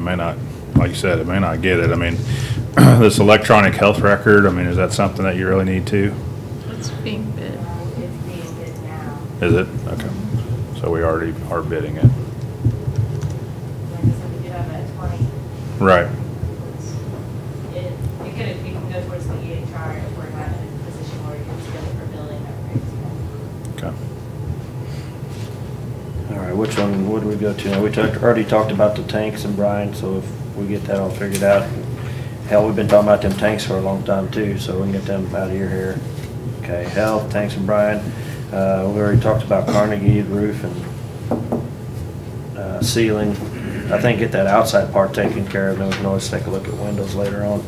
may not, like you said, it may not get it. I mean, this electronic health record, I mean, is that something that you really need to? It's being bid. It's being bid now. Is it? Okay. So we already are bidding it. Like I said, we do have a twenty. Right. It, it could, it can go towards the EHR if we're not in a position where we can scale for billing upgrades. Okay. All right, which one would we go to? We talked, already talked about the tanks and Brian, so if we get that all figured out. Hell, we've been talking about them tanks for a long time too, so we can get them out of your hair. Okay, health, tanks and Brian. Uh, we already talked about Carnegie roof and, uh, ceiling. I think get that outside part taken care of, then we can always take a look at windows later on.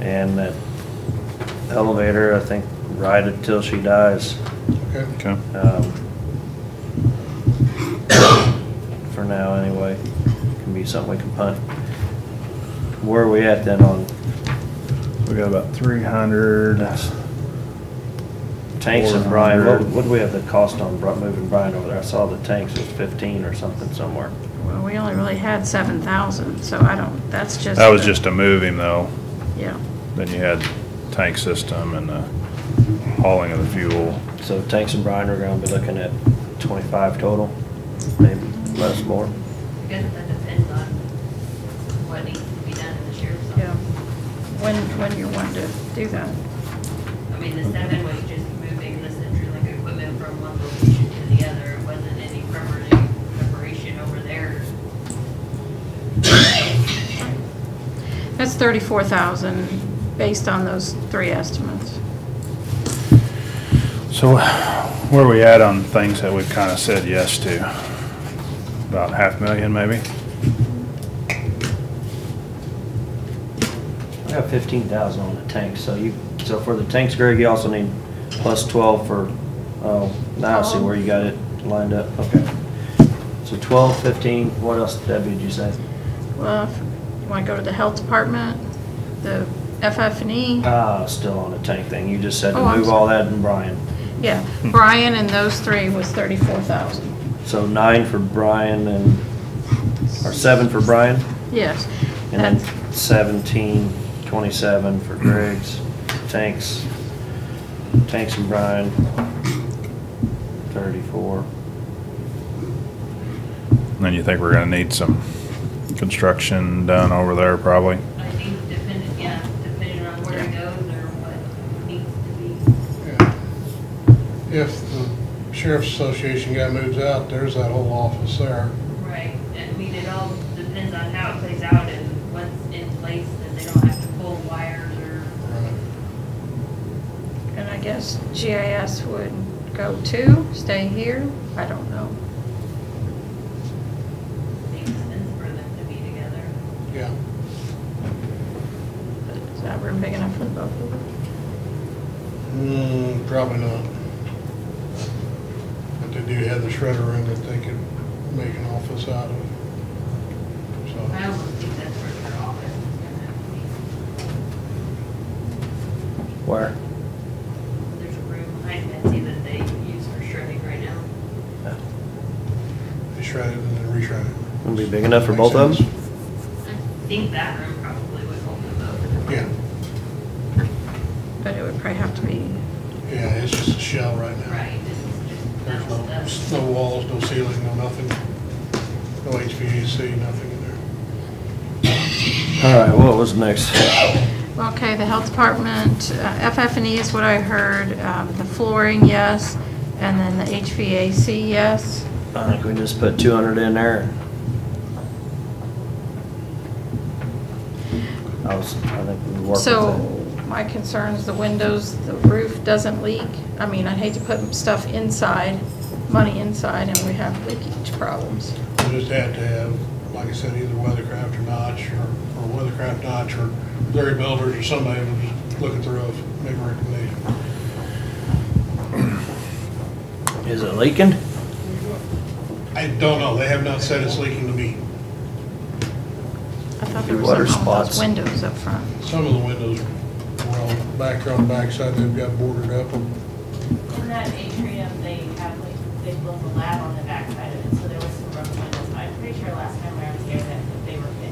And that elevator, I think, ride it till she dies. Okay. Okay. Um, For now, anyway, can be something we can punt. Where are we at then on We got about three hundred. tanks and Brian? What, 400. what do we have the cost on Bri- moving Brian over there? I saw the tanks was fifteen or something somewhere. Well, we only really had seven thousand, so I don't, that's just. That was the- just to move him though. Yeah, Then you had tank system and the hauling of the fuel. So tanks and Brian are gonna be looking at twenty-five total, maybe less, more. Because that depends on what needs to be done in the sheriff's yeah. When, when you want to do that. I mean, the seven was just moving the Centrelink equipment from one location to the other. It wasn't any permanent preparation over there. That's thirty-four thousand based on those three estimates. So where are we at on things that we've kind of said yes to? About half million maybe? I got fifteen thousand on the tanks, so you, so for the tanks, Greg, you also need plus twelve for, oh, now I see where you got it lined up, okay. So twelve, fifteen, what else, Debbie, did you say? Well, if you want to go to the health department, the FF&E, Uh, Ah, still on the tank thing, you just said to Oh, I'm move all that and Brian. yeah, hmm. Brian and those three was thirty-four thousand. So nine for Brian and, or seven for Brian, Yes. and That's- then seventeen, twenty-seven for Greg's, tanks, tanks and Brian, thirty-four. And Then you think we're gonna need some construction done over there probably? I think depending, yeah, depending on where it goes or what needs to be. Yeah. If the sheriff's association guy moves out, there's that whole office there. Right, I mean, it all depends on how it plays out and what's in place, that they don't have to pull wires or. And I guess GIS would go too, stay here, I don't know. Makes sense for them to be together. Yeah. But Is that room big enough for the both of them? Hmm, probably not. But they do have the shredder room that they could make an office out of. I So, almost think that's where their office is gonna have to be. Where? There's a room behind Betsy that they use for shredding right now. they shred it and then re-shred it. Gonna be big enough for Makes both of them? sense. I think that room probably would hold them both. Yeah, But it would probably have to be, yeah, it's just a shell right now. Right, this is just There's metal stuff. no, no walls, no ceiling, no nothing. No HVAC, nothing in there. All right, what was next? well, okay, the health department, uh, FF&E is what I heard, um, the flooring, yes, and then the HVAC, yes. I think we just put two hundred in there. I was, I think we worked with So that. my concerns, the windows, the roof doesn't leak. I mean, I'd hate to put stuff inside, money inside, and we have leakage problems. We just had to have, like I said, either Weathercraft or Notch, or, or Weathercraft Notch, or Larry Builders, or somebody would just look at the roof, make a recommendation. Is it leaking? I don't know, they have not said it's leaking to me. I thought there was Water something on those spots. windows up front. Some of the windows were on, back on the backside, they've got boarded up. In that atrium, they have like, they built a lab on the backside of it, so there was some rough windows. I'm pretty sure last time I was here, that